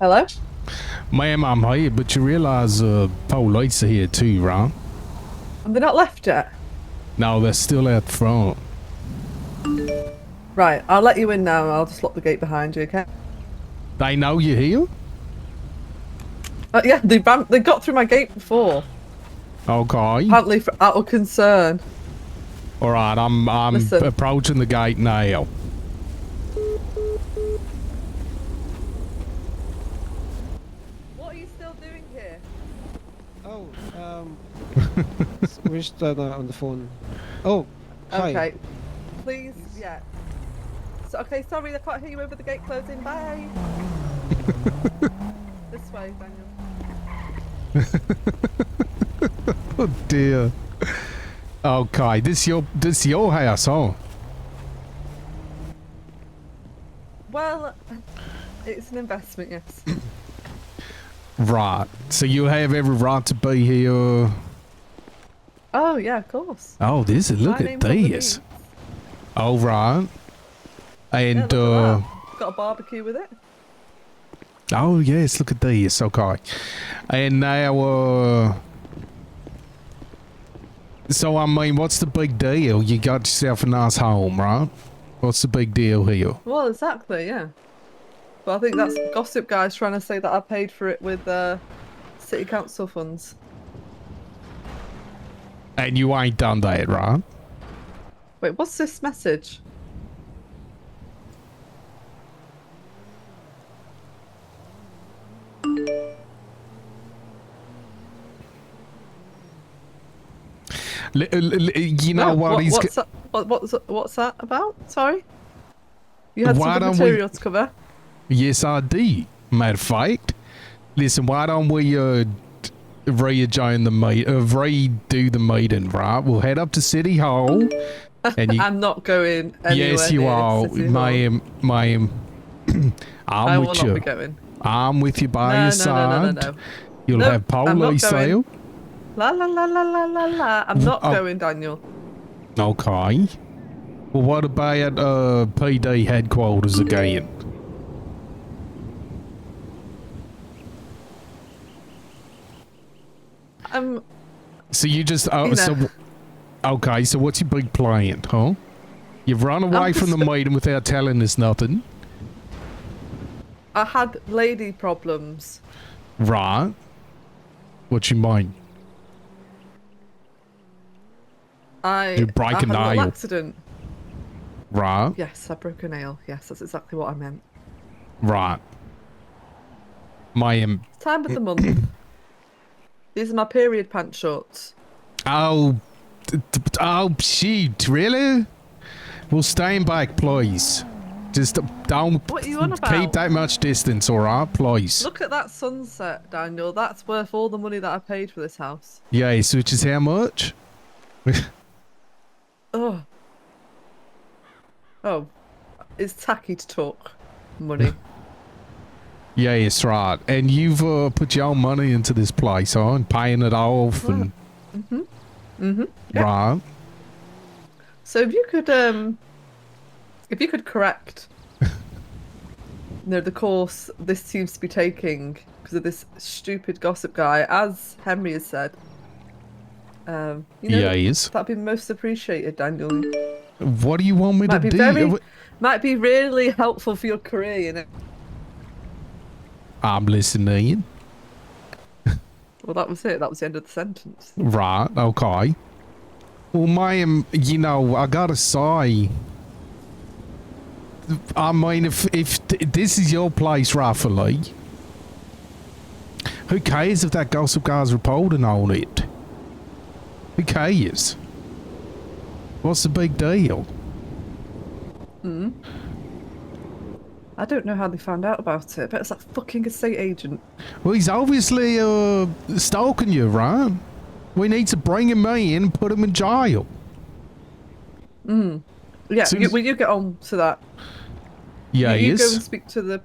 Hello? Ma'am, I'm here, but you realize uh, Paul Lights are here too, right? Have they not left yet? No, they're still out front. Right, I'll let you in now and I'll just lock the gate behind you, okay? They know you're here? Uh, yeah, they ran, they got through my gate before. Okay. Apparently for out of concern. All right, I'm I'm Listen. approaching the gate now. What are you still doing here? Oh, um, s- we're just uh, on the phone. Oh, hi. Okay. Please, yeah. So, okay, sorry, I can't hear you over the gate closing. Bye. this way, Daniel. Oh dear. Okay, this your this your house, huh? Well, it's an investment, yes. Right. So you have every right to be here. oh, yeah, of course. Oh, this is look My at name's on the this. deed. All right. Yeah, And look at uh, that. Got a barbecue with it. oh yes, look at this. Okay. And now, uh, so I mean, what's the big deal? You got yourself a nice home, right? What's the big deal here? Well, exactly, yeah. But I think that's Gossip Guy's trying to say that I paid for it with uh, city council funds. And you ain't done that, right? Wait, what's this message? L- l- l- you know Wow, what, what- he's what's, that, what, what's, what's that about? Sorry? You had some Why good don't we- material to cover. Yes, I did. Matter of fact, listen. Why don't we uh, d- rejoin the meet, uh, redo the meeting? Right, we'll head up to City Hall, and you. I'm not going anywhere. yes, you near are, City Hall. ma'am, ma'am. I'm I will with not you. be going. I'm with you by No, no, your no, no, side. no, no. You'll Nope, have I'm not police going. sale. La la la la la la la. I'm not Oh. going, Daniel. Okay. Well, what about uh, PD headquarters again? I'm So you just oh, Tina. so okay. So what's your big plan, huh? You've run away from the just- meeting without telling us nothing, I had lady problems. right? What you mean? I You break I a had little nail. accident. Right, Yes, I broke a nail. Yes, that's exactly what I meant. right. My um, Time of the month. These are my period pant shorts. oh, t- t- oh, shoot! Really? Well, stand back, please. Just don't What are you on keep about? that much distance, all right, please. Look at that sunset, Daniel. That's worth all the money that I paid for this house. Yes, which is how much? Oh. Oh. It's tacky to talk money. Yes, right. And you've uh, put your own money into this place, huh? And paying it off and. Mm-hmm. Mm-hmm. Right. so if you could um if you could correct you know, the course this seems to be taking because of this stupid gossip guy, as Henry has said. Um you know, yes. that'd be most appreciated, Daniel. What do you want me Might to be do? very, might be really helpful for your career. You know. I'm listening. Well, that was it. That was the end of the sentence. Right. Okay. Well, ma'am, you know, I gotta say. I mean, if if th- this is your place, rightfully, who cares if that gossip guy's reporting on it? Who cares? What's the big deal? I don't know how they found out about it, but it's that fucking estate agent. Well, he's obviously uh, stalking you, right? We need to bring him in and put him in jail. Yeah, Soon you, as- well, you get on to that. Yeah, you, you he go is. and speak to the